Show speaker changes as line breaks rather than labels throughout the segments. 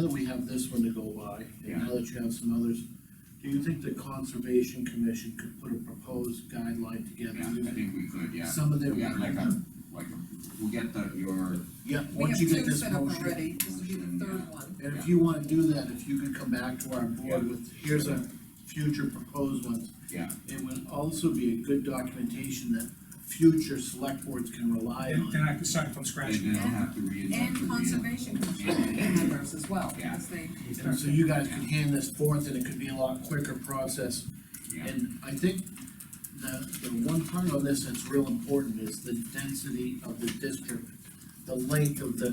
that we have this one to go by, and now that you have some others, do you think the Conservation Commission could put a proposed guideline together?
Yeah, I think we could, yeah.
Some of their.
We got like a, like a, we'll get the, your,
Yeah,
We have
once you get
two
this
set up
motion.
already, this will be the third one.
And if you wanna do that, if you could come back to our board with, here's our future proposed ones.
Yeah.
It would also be a good documentation that future select boards can rely
And
on.
then I can start from scratch.
and then I'll have to reinvent the
And
wheel.
conservation commission members as well,
Yeah.
because they.
And so you guys could hand this forth and it could be a lot quicker process.
Yeah,
And I think the, the one part of this that's real important is the density of the district, the length of the,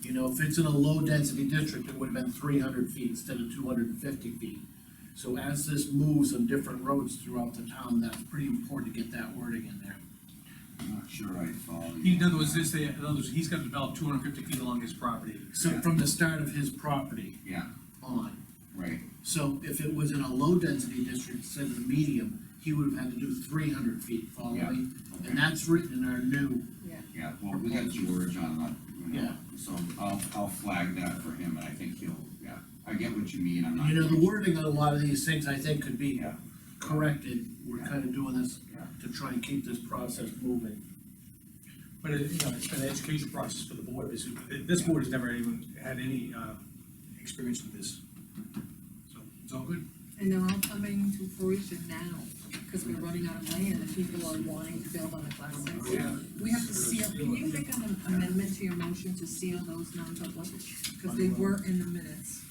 you know, if it's in a low-density district, it would have been three hundred feet instead of two hundred and fifty feet. So as this moves on different roads throughout the town, that's pretty important to get that wording in there.
I'm not sure I follow you.
In other words, this, in other words, he's gonna develop two hundred and fifty feet along his property.
So from the start of his property
Yeah,
on,
right,
so if it was in a low-density district instead of the medium, he would have had to do three hundred feet, follow me?
Yeah.
And
okay,
that's written in our new
Yeah.
yeah, well, we got George on that, you know,
Yeah.
so I'll, I'll flag that for him, and I think he'll, yeah, I get what you mean, I'm not.
You know, the wording on a lot of these things, I think, could be
Yeah.
corrected, we're
Yeah.
kind of doing this
Yeah.
to try and keep this process moving.
But, it- you know, it's been an education process for the board, this, this board has never even had any, uh, experience with this. So, it's all good.
And they're all coming to fruition now, because we're running out of land, and people are wanting to build on the class six.
Yeah.
We have to seal, can you make an amendment to your motion to seal those non-public? Because they were in the minutes.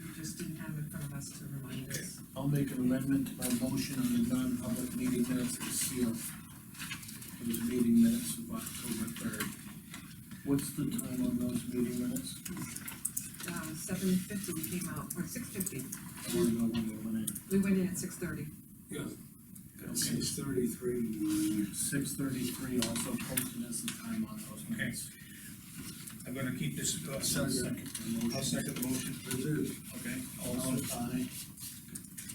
We just didn't have it in front of us to remind us.
I'll make an amendment to my motion on the non-public meeting minutes to seal those meeting minutes of October third. What's the time on those meeting minutes?
Uh, seven fifty we came out, or six fifty,
I wanna know when they went in.
we went in at six thirty.
Okay,
Six thirty-three.
six thirty-three also posted as the time on those minutes.
I'm gonna keep this, uh,
I'll
second,
Second the motion.
I'll second the motion, okay?
Also,
Also,
aye.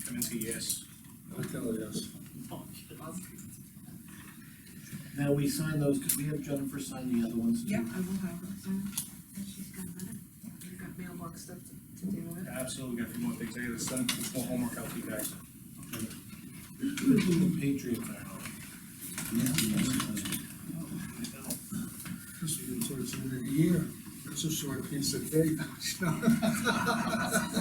Kaminsky, yes.
I tell you, yes.
Now, we sign those, could we have Jennifer sign the other ones?
Yeah, I will have her sign. And she's got a minute, we've got mailbox stuff to- to deal with.
Absolutely, got a few more things, I gotta send some more homework out to you guys.
The Patriots are on.
This is towards the end of the year, that's a short piece of cake.
Oh,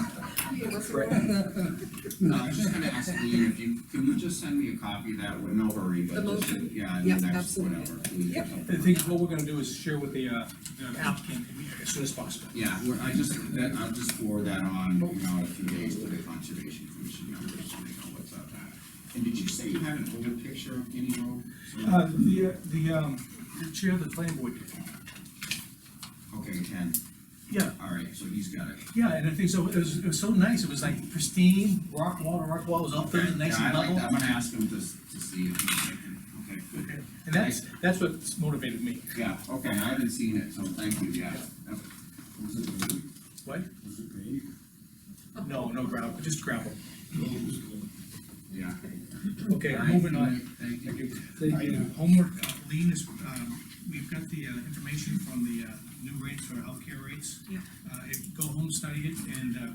Yeah, what's the-
No, I was just gonna ask Lean, if you, can you just send me a copy of that, no hurry,
The
but just,
motion?
yeah, in
Yeah,
the next,
absolutely.
whatever, please, or
Yep.
something.
The thing, is, what we're gonna do is share with the, uh, the applicant as soon as possible.
Yeah, we're, I just, that, I'll just forward that on, you know, in a few days to the conservation commission members, so they know what's up. And did you say you had an older picture of Guinea Road?
Uh, the, uh, the, um, the chair of the planning board did.
Okay, Ken,
Yeah,
all right, so he's got it.
yeah, and I think so, it was, it was so nice, it was like pristine, rock wall to rock wall, it was up there, nice
Yeah, I
and
like
level.
that. I'm gonna ask him to, s- to see if he's making, okay, good.
And that's, that's what's motivated me.
Yeah, okay, I haven't seen it, so thank you, yeah. Yep.
Was it great?
What?
Was it great?
Oh.
No, no gravel, just gravel.
Yeah.
Okay,
All right,
moving on.
Thank
Thank
you.
you. Alright, Homework, uh, Lean is, um, we've got the uh, information from the uh, new rates for healthcare rates.
Yeah.
Uh, if- Go home, study it, and uh,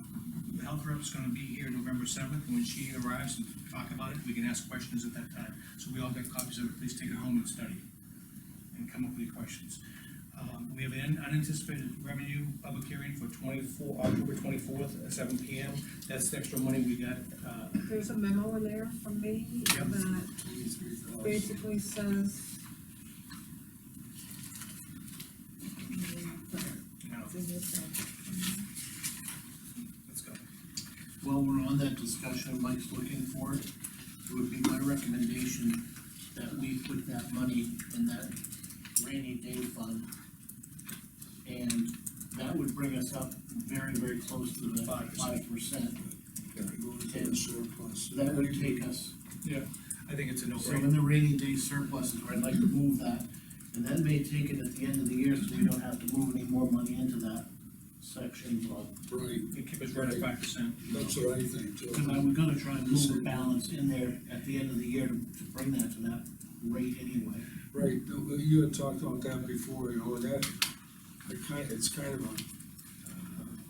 the health rep's gonna be here November seventh, when she arrives and talk about it, we can ask questions at that time. So we all got copies of it, please take it home and study it, and come up with your questions. Um, We have an unanticipated revenue public hearing for twenty-four, October twenty-fourth, at seven P M. That's the extra money we got uh,
There's a memo in there from me
Yeah.
that basically says.
you know, let's go.
While we're on that discussion, Mike's looking for it, it would be my recommendation that we put that money in that rainy day fund. And that would bring us up very, very close to the
Five percent.
five percent.
Ten surplus.
So that would take us,
I think it's a
so
no-brainer.
in the rainy day surplus is where I'd like to move that. And that may take it at the end of the year, so we don't have to move any more money into that section, but
Right,
You keep us right at five percent.
that's what I think
Because I
too.
was gonna try and move the balance in there at the end of the year to, to bring that to that rate anyway.
Right, you had talked about that before, you know, that, I kind, it's kind of a